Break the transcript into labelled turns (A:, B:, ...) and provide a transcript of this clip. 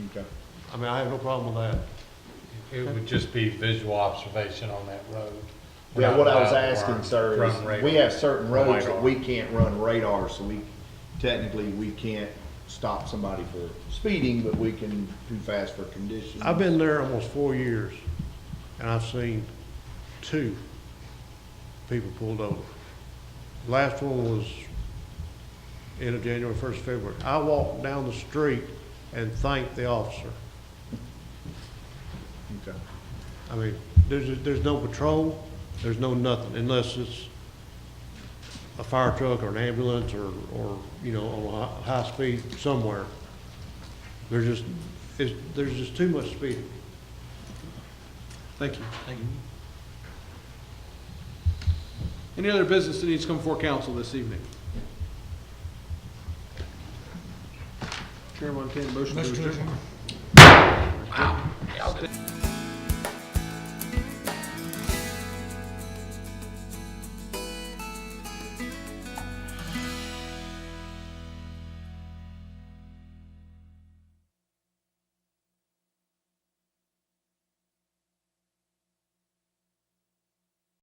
A: Okay.
B: I mean, I have no problem with that.
C: It would just be visual observation on that road. We're
A: Yeah,
C: not
A: what I was
C: allowed to
A: asking,
C: run-
A: sir,
C: run
A: is
C: radar.
A: we have certain roads that
C: Radar.
A: we can't run radar, so we, technically, we can't stop somebody for speeding, but we can too fast for conditions.
B: I've been there almost four years, and I've seen two people pulled over. Last one was end of January, first of February. I walked down the street and thanked the officer.
A: Okay.
B: I mean, there's, there's no patrol, there's no nothing, unless it's a fire truck or an ambulance or, or, you know, on a hi- high speed somewhere. There's just, it's, there's just too much speeding.
D: Thank you. Thank you. Any other business that needs to come before council this evening? Chairman, can motion to adjourn?